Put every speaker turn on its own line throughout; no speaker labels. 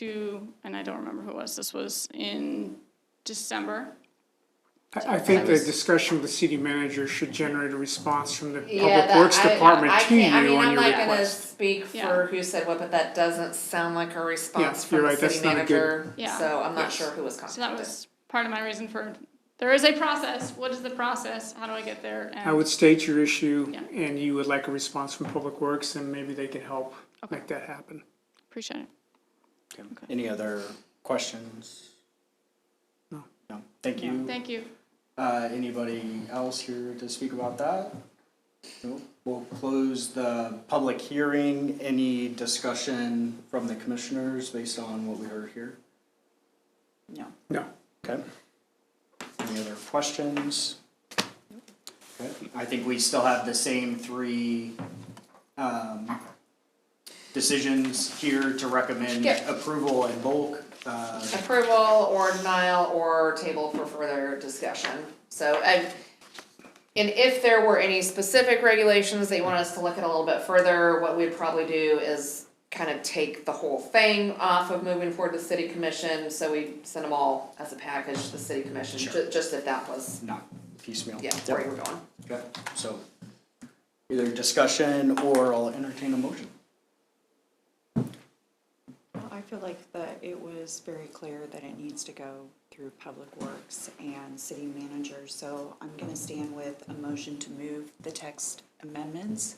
to, and I don't remember who it was, this was in December.
I, I think the
was-
discussion with the city manager should generate a response from the
Yeah,
public
that,
works
I,
department
I
to you
can't, I mean,
on
I'm
your
not gonna
request.
speak
Yeah.
for who said what, but that doesn't sound like a response
Yeah,
from
you're
the
right, that's
city
not a good-
manager,
Yeah.
so I'm not
Yes.
sure who was
So that
contacted.
was part of my reason for, there is a process, what is the process, how do I get there?
I would state your issue
Yeah.
and you would like a response from public works and maybe they can help make that happen.
Appreciate it.
Okay. Any other questions?
No.
No, thank you.
Thank you.
Uh, anybody else here to speak about that? No. We'll close the public hearing. Any discussion from the commissioners based on what we heard here?
No.
No.
Okay. Any other questions? Okay, I think we still have the same three, um, decisions here to recommend
Yeah.
approval in bulk. Uh,
Approval or denial or table for further discussion, so, and, and if there were any specific regulations that you want us to look at a little bit further, what we'd probably do is kind of take the whole thing off of moving forward to city commission, so we send them all as a package to the city commission,
Sure.
ju- just if that was,
not piecemeal.
yeah,
Yep.
where you were going.
Okay, so either discussion or I'll entertain a motion.
Well, I feel like that it was very clear that it needs to go through Public Works and City Manager, so I'm gonna stand with a motion to move the text amendments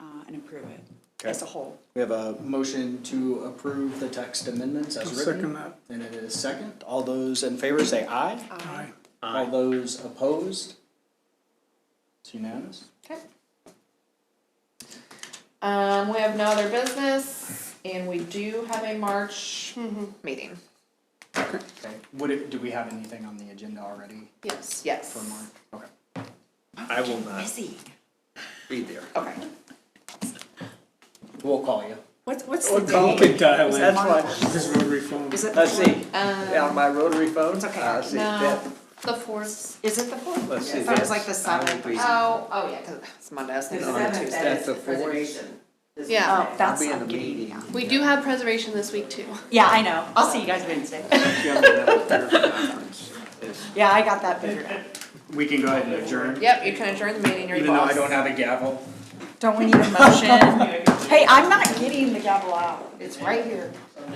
uh, and approve it as a whole.
We have a motion to approve the text amendments as
I'll
written.
second that.
And it is second. All those in favor say aye.
Aye.
All those opposed? It's unanimous.
Okay. Um, we have no other business, and we do have a March meeting,
Okay, would it, do we have anything on the agenda already
yes,
for
yes,
March? Okay.
I will not
Missy,
be there.
okay.
We'll call you.
what's, what's the
call
date?
uh,
dial
That's
March.
why,
This is Rotary phone.
Is it the
let's see,
fourth?
on
Um,
my rotary phone,
It's okay.
Uh,
I see that,
no, the fourth,
Is it the fourth?
let's see,
I
that's.
thought it was like the
I will
seventh.
be-
oh, oh, yeah, cause it's Monday, it's
no,
not Tuesday.
That's the fourth.
Yeah,
Oh, that's
I'll be in
not
the
good.
meeting.
We do have preservation this week too.
Yeah, I know, I'll see you guys Wednesday. Yeah, I got that figured out.
We can go ahead and adjourn,
yep, you can adjourn the meeting, you're the
even though
boss.
I don't have a gavel.
Don't we need a motion? Hey, I'm not getting the gavel out, it's right here.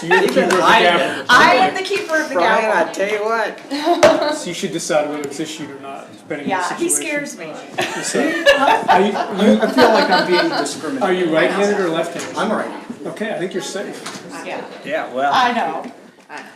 So you're the keeper of the gavel,
I am the keeper of the
Brian,
gavel.
I tell you what,
so you should decide whether it's issued or not, depending on the
Yeah, he
situation.
scares me.
Are you, you-
I feel like I'm being discriminated.
are you right-handed or left-handed?
I'm all right.
Okay, I think you're safe.
Yeah,
yeah, well.
I know.